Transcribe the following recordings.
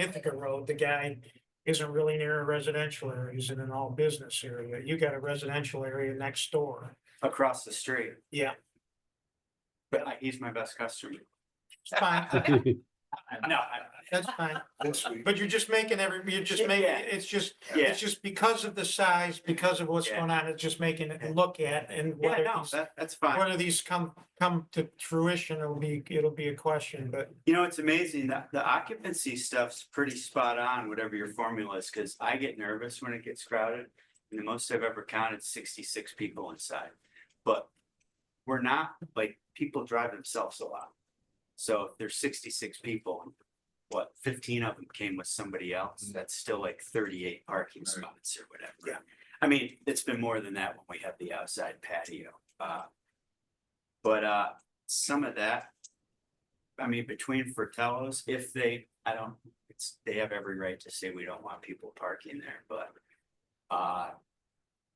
Ithaca Road, the guy isn't really near a residential area, he's in an all business area. You got a residential area next door. across the street, Yeah, but I- he's my best customer. it's fine, No, I- that's fine. This week. But you're just making every, you're just making, Yeah. it's just, Yeah. it's just because of the size, because of what's Yeah. going on, it's just making it look at and yeah, whether no, these, that, that's fine. whether these come, come to fruition, it'll be, it'll be a question, but You know, it's amazing that the occupancy stuff's pretty spot on, whatever your formula is, because I get nervous when it gets crowded. And the most I've ever counted sixty-six people inside, but we're not, like, people drive themselves a lot. So if there's sixty-six people, what, fifteen of them came with somebody else, that's still like thirty-eight parking spots or whatever. Yeah. I mean, it's been more than that when we have the outside patio, uh. But uh, some of that I mean, between Fratello's, if they, I don't, it's, they have every right to say we don't want people parking there, but. Uh,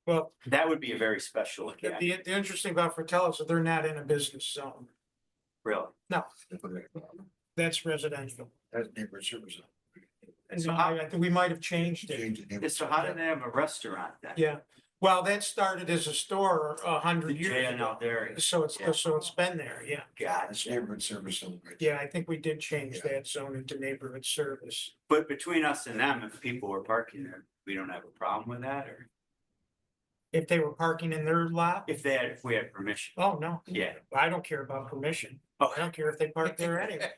well, that would be a very special the, event, the the interesting about Fratello's is they're not in a business zone. really. That's residential. That's neighborhood service. And so I, I think we might have changed it. Change the neighborhood So how service. did they have a restaurant then? Yeah, well, that started as a store a hundred years Yeah, no, ago. there, So it's, Yeah. so it's been there, yeah. God, That's neighborhood service. zone right there. Yeah, I think we did change that zone into neighborhood service. but between us and them, if people were parking there, we don't have a problem with that, or If they were parking in their lot, if they had, if we had permission, oh, no. Yeah. I don't care about permission. Oh. I don't care if they park there anyway.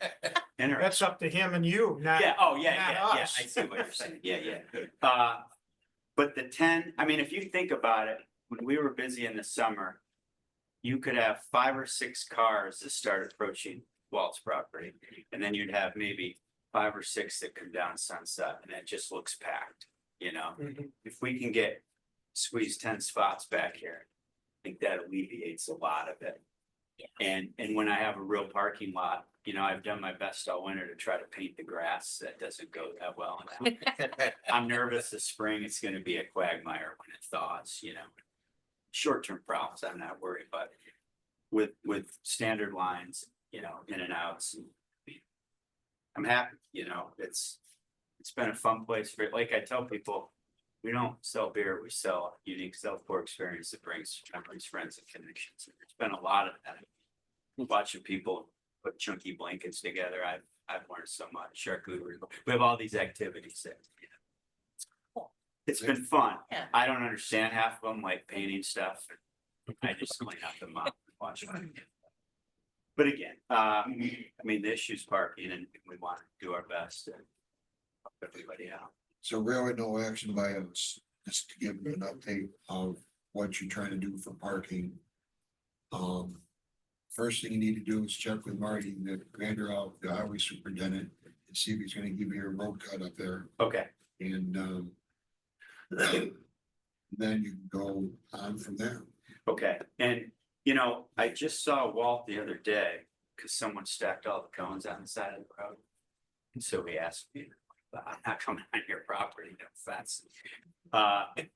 interesting. That's up to him and you, not, Yeah, oh, yeah, not yeah, yeah, us. I see what you're saying, yeah, yeah. Uh, but the ten, I mean, if you think about it, when we were busy in the summer. You could have five or six cars that start approaching Walt's property, and then you'd have maybe five or six that come down Sunset, and it just looks packed, you know? Mhm. If we can get, squeeze ten spots back here, I think that alleviates a lot of it. And, and when I have a real parking lot, you know, I've done my best all winter to try to paint the grass. That doesn't go that well. And I'm nervous this spring. It's gonna be a quagmire when it thaws, you know. Short-term problems, I'm not worried, but with, with standard lines, you know, in and outs. and- I'm happy, you know, it's, it's been a fun place for, like I tell people, we don't sell beer, we sell unique self-pour experience that brings memories, friends and connections. There's been a lot of that watching people put chunky blankets together, I've, I've learned so much, charcuterie, we have all these activities that, you know. It's been fun, Yeah. I don't understand half of them, like painting stuff, I just clean up the mop, and watch them. But again, um, I mean, the issue's parking and we want to do our best to help everybody out. So really no action by us, just to give you an update of what you're trying to do for parking. Um, first thing you need to do is check with Marty, the commander of the highway superintendent, and see if he's gonna give you a road cut up there Okay, and, um. Then you can go on from there. okay, and you know, I just saw Walt the other day, cause someone stacked all the cones on the side of the road. And so he asked me, "But I'm not coming on your property, no offense. Uh, I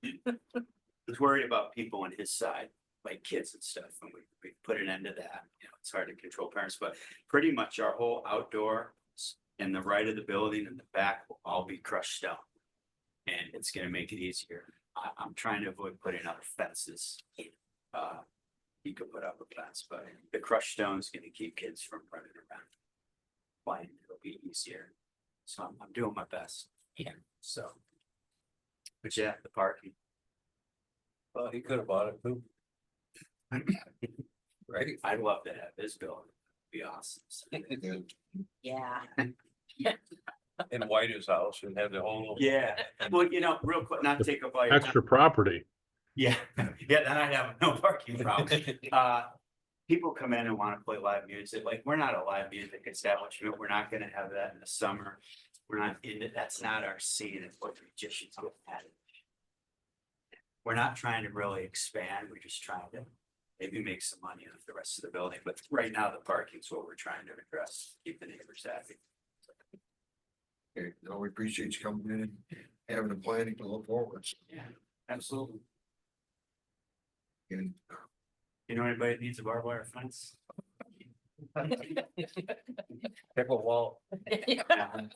was worried about people on his side, like kids and stuff, and we, we put an end to that, you know, it's hard to control parents, but pretty much our whole outdoor s- and the right of the building and the back will all be crushed stone. And it's gonna make it easier. I, I'm trying to avoid putting out fences. Uh, you could put up a fence, but the crushed stone's gonna keep kids from running around. Fine, it'll be easier. So I'm, I'm doing my best. Yeah. So. But yeah, the parking. Well, he could have bought it too. Right? I'd love to have his building. Be awesome. So, And Yeah. And white his house and have the whole. Yeah, well, you know, real quick, not take up all your time. extra property. Yeah, yeah, then I'd have no parking problem. Uh, people come in and wanna play live music, like, we're not a live music establishment, we're not gonna have that in the summer. We're not in it, that's not our scene, it's what magicians have had. We're not trying to really expand, we're just trying to maybe make some money off the rest of the building, but right now the parking's what we're trying to address, keep the neighbors happy. Okay, no, we appreciate you coming in and having a planning to look forward to. Yeah, absolutely. and You know anybody that needs a barbed wire fence? Pickleball. Yeah.